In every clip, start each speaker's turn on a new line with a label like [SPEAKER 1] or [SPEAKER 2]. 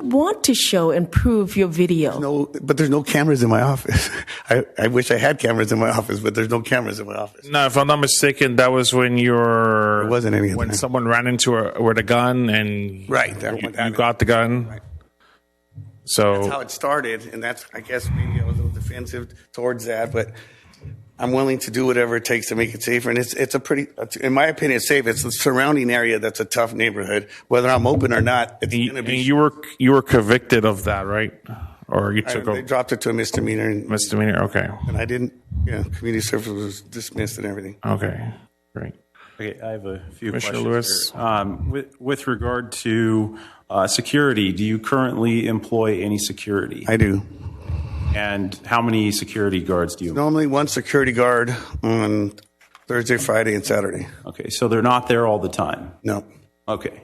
[SPEAKER 1] want to show and prove your video.
[SPEAKER 2] No, but there's no cameras in my office. I, I wish I had cameras in my office, but there's no cameras in my office.
[SPEAKER 3] No, if I'm not mistaken, that was when you're.
[SPEAKER 2] There wasn't any at the
[SPEAKER 3] When
[SPEAKER 2] time.
[SPEAKER 3] someone ran into a with a gun and
[SPEAKER 2] Right, that
[SPEAKER 3] you,
[SPEAKER 2] one- that-
[SPEAKER 3] you got the gun.
[SPEAKER 2] Right. That's how
[SPEAKER 3] So
[SPEAKER 2] it started, and that's I guess maybe I was a little defensive towards that, but I'm willing to do whatever it takes to make it safer. And it's it's a pretty, in my opinion, it's safe. It's the surrounding area that's a tough neighborhood. Whether I'm open or not, it's
[SPEAKER 3] and
[SPEAKER 2] going to
[SPEAKER 3] and
[SPEAKER 2] be.
[SPEAKER 3] you were you were convicted of that, right? Or you
[SPEAKER 2] I-
[SPEAKER 3] took
[SPEAKER 2] they
[SPEAKER 3] a
[SPEAKER 2] dropped it to a misdemeanor, and,
[SPEAKER 3] misdemeanor? Okay,
[SPEAKER 2] and I didn't. Yeah, community service was dismissed and everything.
[SPEAKER 3] okay, great.
[SPEAKER 4] Okay, I have a few
[SPEAKER 3] Commissioner Lewis.
[SPEAKER 4] questions. here. Um, with, with regard to uh, security, do you currently employ any security?
[SPEAKER 2] I do.
[SPEAKER 4] and how many security guards do you?
[SPEAKER 2] Normally, one security guard on Thursday, Friday, and Saturday.
[SPEAKER 4] Okay, so they're not there all the time.
[SPEAKER 2] No,
[SPEAKER 4] Okay,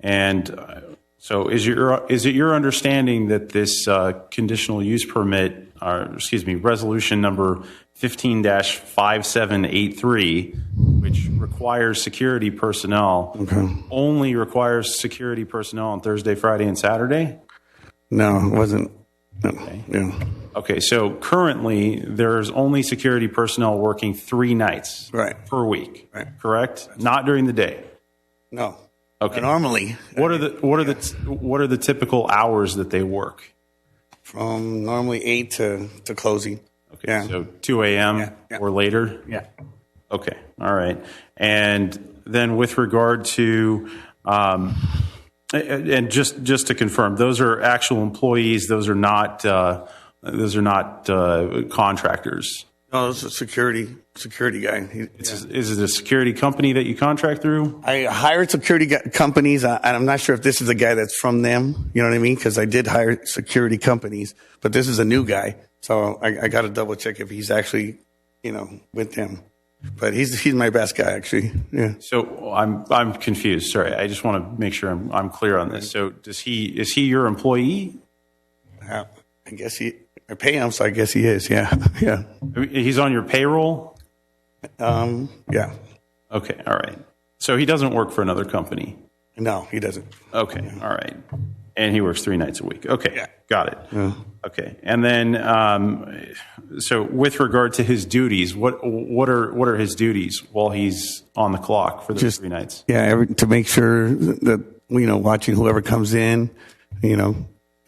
[SPEAKER 4] and uh, so is your is it your understanding that this uh, conditional use permit, or excuse me, resolution number fifteen five seven eight three, which requires security personnel, only requires security personnel on Thursday, Friday, and Saturday?
[SPEAKER 2] no, it wasn't. No, yeah,
[SPEAKER 4] Okay, so currently there's only security personnel working three nights
[SPEAKER 2] Right.
[SPEAKER 4] per week,
[SPEAKER 2] Right.
[SPEAKER 4] correct? Not during the day.
[SPEAKER 2] no.
[SPEAKER 4] Okay.
[SPEAKER 2] Normally,
[SPEAKER 4] What are the what are the what are the typical hours that they work?
[SPEAKER 2] from normally eight to, to closing.
[SPEAKER 4] Okay,
[SPEAKER 2] Yeah.
[SPEAKER 4] so 2 a.m.
[SPEAKER 2] Yeah, yeah.
[SPEAKER 4] or later.
[SPEAKER 2] Yeah.
[SPEAKER 4] Okay, all right. And then with regard to, um, and and just just to confirm, those are actual employees. Those are not uh, those are not uh, contractors.
[SPEAKER 2] No, it's a security security guy. He,
[SPEAKER 4] Is, is it a security company that you contract through?
[SPEAKER 2] I hired security gu- companies, I- and I'm not sure if this is a guy that's from them. You know what I mean? Because I did hire security companies, but this is a new guy, so I, I got to double check if he's actually, you know, with them. But he's he's my best guy actually. Yeah.
[SPEAKER 4] So I'm I'm confused. Sorry, I just want to make sure I'm I'm clear on this.
[SPEAKER 2] Mm-hmm.
[SPEAKER 4] So does he is he your employee?
[SPEAKER 2] Uh, I guess he. I pay him, so I guess he is. Yeah. Yeah.
[SPEAKER 4] I mean, He's on your payroll.
[SPEAKER 2] Um. Yeah.
[SPEAKER 4] Okay, all right. So he doesn't work for another company.
[SPEAKER 2] No, he doesn't.
[SPEAKER 4] Okay, all right. And he works three nights a week. Okay,
[SPEAKER 2] Yeah.
[SPEAKER 4] got it. Okay, and then um, so with regard to his duties, what what are what are his duties while he's on the clock for those
[SPEAKER 2] Just-
[SPEAKER 4] three nights?
[SPEAKER 2] Yeah, every, to make sure that you know watching whoever comes in, you know,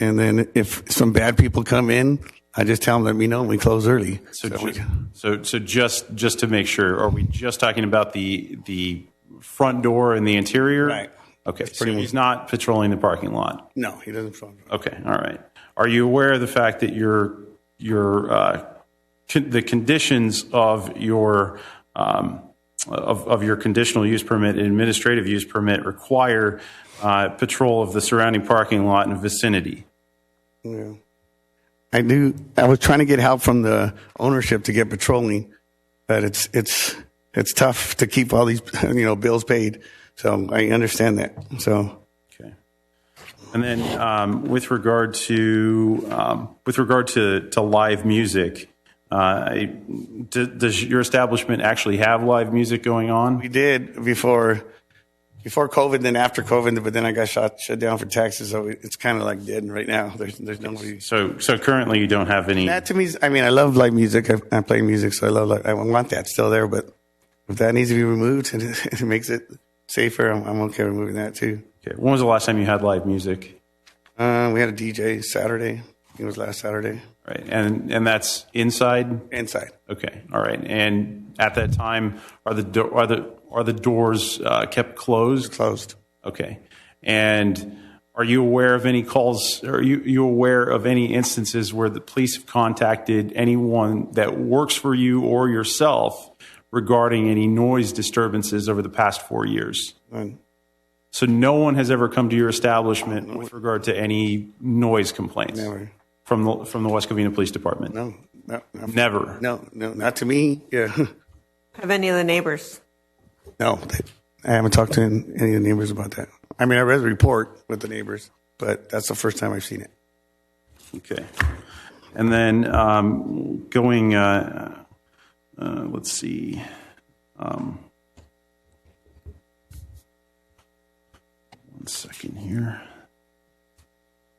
[SPEAKER 2] and then if some bad people come in, I just tell them let me know and we close early.
[SPEAKER 4] So,
[SPEAKER 2] So we-
[SPEAKER 4] ju- so, so just just to make sure, are we just talking about the the front door and the interior?
[SPEAKER 2] Right.
[SPEAKER 4] Okay. So
[SPEAKER 2] pretty much-
[SPEAKER 4] he's not patrolling the parking lot.
[SPEAKER 2] no, he doesn't. phone.
[SPEAKER 4] Okay. All right. Are you aware of the fact that your your uh, con- the conditions of your um, of, of your conditional use permit and administrative use permit require uh, patrol of the surrounding parking lot and vicinity?
[SPEAKER 2] Yeah. I knew I was trying to get help from the ownership to get patrolling, but it's it's it's tough to keep all these you know bills paid. So I understand that. So
[SPEAKER 4] Okay. And then um, with regard to um, with regard to, to live music, uh, I- d- does your establishment actually have live music going on?
[SPEAKER 2] we did before before COVID, then after COVID, but then I got shot shut down for taxes. So it's kind of like dead right now. There's there's nobody.
[SPEAKER 4] So so currently you don't have any.
[SPEAKER 2] That to me, is- I mean, I love live music. I, I play music, so I love. Live, I want that still there, but if that needs to be removed and it, makes it safer, I'm, I'm okay removing that too.
[SPEAKER 4] Okay. When was the last time you had live music?
[SPEAKER 2] Uh, we had a DJ Saturday. It was last Saturday
[SPEAKER 4] All Right. And and that's inside.
[SPEAKER 2] inside.
[SPEAKER 4] Okay. All right. And at that time, are the do- are the are the doors uh, kept closed?
[SPEAKER 2] Closed.
[SPEAKER 4] Okay. And are you aware of any calls? Are you, you aware of any instances where the police have contacted anyone that works for you or yourself regarding any noise disturbances over the past four years?
[SPEAKER 2] And
[SPEAKER 4] So no one has ever come to your establishment with regard to any noise complaints
[SPEAKER 2] never.
[SPEAKER 4] from the from the West Covina Police Department.
[SPEAKER 2] No. No. No.
[SPEAKER 4] Never.
[SPEAKER 2] No. No. Not to me. Yeah.
[SPEAKER 5] Have any of the neighbors?
[SPEAKER 2] No, they, I haven't talked to any of the neighbors about that. I mean, I read the report with the neighbors, but that's the first time I've seen it.
[SPEAKER 4] Okay. And then um, going, uh, uh, let's see. Um, one second here.